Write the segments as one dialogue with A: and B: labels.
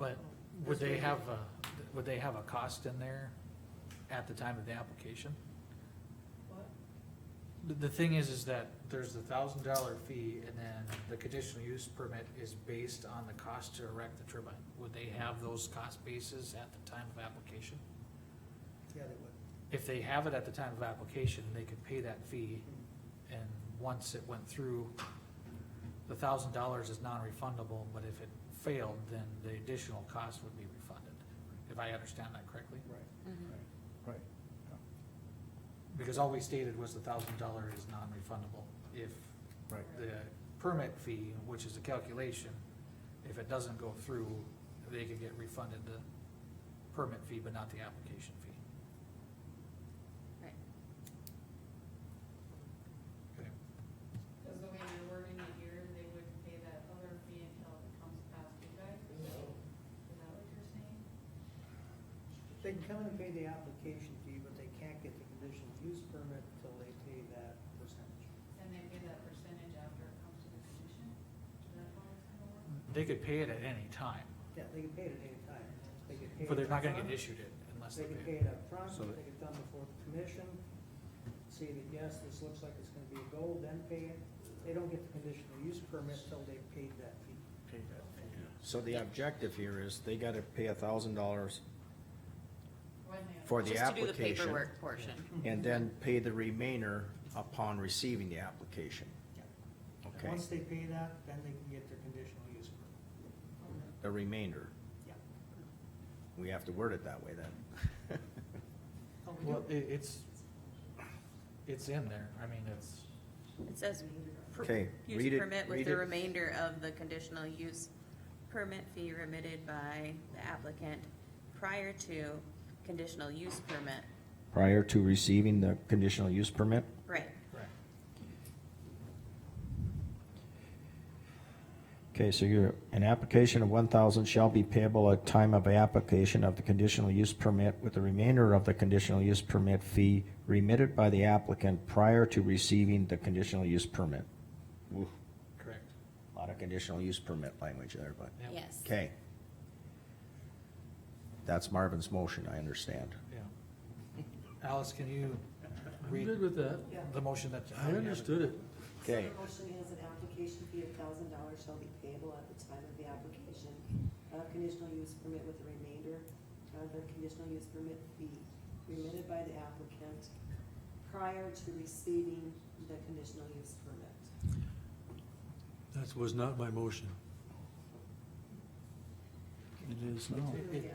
A: Mm-hmm. Would they have a, would they have a cost in there at the time of the application?
B: What?
A: The, the thing is, is that there's the thousand dollar fee and then the conditional use permit is based on the cost to erect the turbine. Would they have those cost bases at the time of application?
C: Yeah, they would.
A: If they have it at the time of application, they could pay that fee and once it went through, the thousand dollars is non-refundable, but if it failed, then the additional cost would be refunded. If I understand that correctly?
C: Right,
B: Mhm.
C: Mm-hmm. right.
D: Right.
A: Because all we stated was the thousand dollar is non-refundable. If
D: Right.
A: the permit fee, which is a calculation, if it doesn't go through, they could get refunded the permit fee, but not the application fee.
B: Right.
A: Okay.
E: Because the way you're wording it here, they would pay that other fee until it comes past you guys? Is that what you're saying?
C: They can come in and pay the application fee, but they can't get the conditional use permit until they pay that percentage.
E: And they pay that percentage after it comes to the commission? Is that how it's gonna work?
A: They could pay it at any time,
C: Yeah, they can pay it at any time. They can pay
A: but
C: it
A: they're not gonna
C: upfront.
A: get issued it unless they
C: They can
A: pay.
C: pay
A: it.
C: it up front.
D: So-
C: they get done before the commission, see that, yes, this looks like it's gonna be a goal, then pay it. They don't get the conditional use permit till they've paid that fee.
D: So the objective here is they gotta pay a thousand dollars
E: When they-
D: for the
B: Just to do the
D: application
B: paperwork portion.
D: and then pay the remainder upon receiving the application. Okay,
C: Once they pay that, then they can get their conditional use permit.
D: the remainder.
C: Yeah.
D: We have to word it that way then.
C: Oh,
A: Well, it, it's, it's in there, I mean, it's,
B: It says, per-
D: Okay, read
B: use
D: it-
B: permit with
D: read
B: the
D: it.
B: remainder of the conditional use permit fee remitted by the applicant prior to conditional use permit.
D: Prior to receiving the conditional use permit?
B: Right,
A: right,
D: Okay, so your, an application of one thousand shall be payable at time of application of the conditional use permit with the remainder of the conditional use permit fee remitted by the applicant prior to receiving the conditional use permit. Ooh,
A: correct.
D: Lot of conditional use permit language there, but,
A: Yeah.
B: yes.
D: okay. That's Marvin's motion, I understand.
A: Yeah. Alice, can you
F: I'm
A: read
F: good with that.
A: the motion that?
F: I understood it.
G: So
D: Okay,
G: the motion has an application fee of thousand dollars shall be payable at the time of the application. A conditional use permit with the remainder of the conditional use permit fee remitted by the applicant prior to receiving the conditional use permit.
F: That was not my motion. It is now.
A: It- it-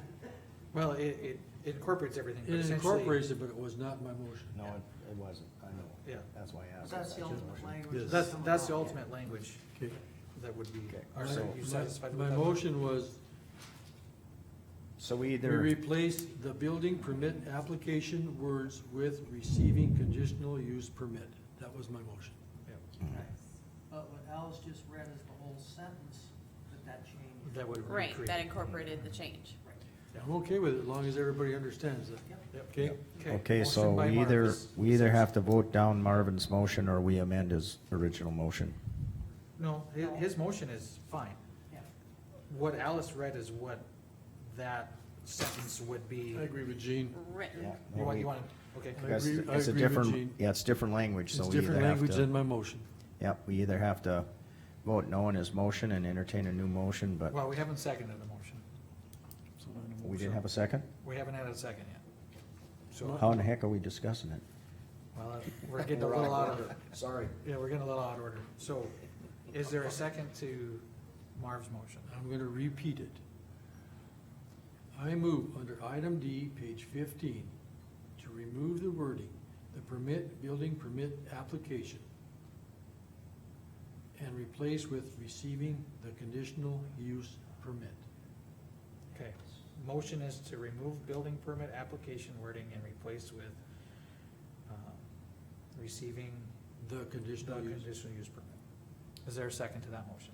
A: Well, it, it- it incorporates everything. but
F: It
A: essentially-
F: incorporates it, but it was not my motion.
D: no, it, it wasn't, I know.
A: Yeah.
D: That's why I asked.
C: That's the
D: That's his
C: ultimate
D: motion.
C: language.
F: Yes.
A: That's, that's the ultimate language
F: Okay.
A: that would be,
D: Okay.
A: are
F: My-
A: you satisfied with
F: My my
A: that?
F: motion was,
D: So we
F: we
D: either.
F: replace the building permit application words with receiving conditional use permit. That was my motion.
A: Yeah.
C: But what Alice just read is the whole sentence, but that changed.
A: That would.
B: Right,
A: recreate.
B: that incorporated the change.
F: I'm okay with it, as long as everybody understands that,
C: Yep.
F: okay?
D: Okay, so
A: motion by
D: we either,
A: Marcus.
D: we either have to vote down Marvin's motion or we amend his original motion.
A: No, his, his motion is fine.
C: Yeah.
A: What Alice read is what that sentence would be.
F: I agree with Gene.
B: Written,
A: You want, you want, okay.
F: I
D: Because
F: agree- I
D: it's a
F: agree with
D: different,
F: Gene.
D: yeah, it's different language,
F: It's
D: so we either
F: different
D: have
F: language than
D: to,
F: my motion.
D: yep, we either have to vote no on his motion and entertain a new motion, but
A: Well, we haven't seconded the motion.
D: we didn't have a second?
A: We haven't had a second yet. So,
D: How in the heck are we discussing it?
A: well, uh, we're getting a little out of,
D: Sorry.
A: yeah, we're getting a little out of order. So is there a second to Marv's motion?
F: I'm gonna repeat it. I move under item D, page fifteen, to remove the wording, the permit, building permit application, and replace with receiving the conditional use permit.
A: Okay, motion is to remove building permit application wording and replace with, um, receiving
F: The
A: the
F: conditional use,
A: conditional use permit. Is there a second to that motion?